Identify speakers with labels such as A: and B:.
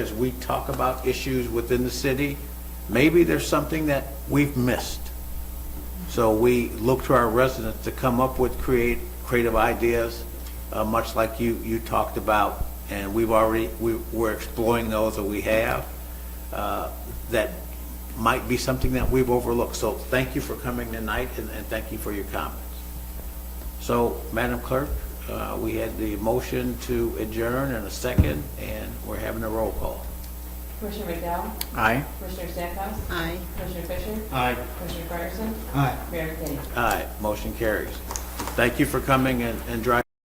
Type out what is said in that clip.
A: as we talk about issues within the city, maybe there's something that we've missed. So we look to our residents to come up with create, creative ideas, uh, much like you, you talked about, and we've already, we, we're exploring those that we have, uh, that might be something that we've overlooked. So thank you for coming tonight, and, and thank you for your comments. So, Madam Clerk, uh, we had the motion to adjourn and a second, and we're having a roll call.
B: Commissioner McDowell?
A: Aye.
B: Commissioner Stackhouse?
C: Aye.
B: Commissioner Fisher?
A: Aye.
B: Commissioner Fryerson?
A: Aye.
B: Mayor McKinney?
A: Aye, motion carries. Thank you for coming and and driving.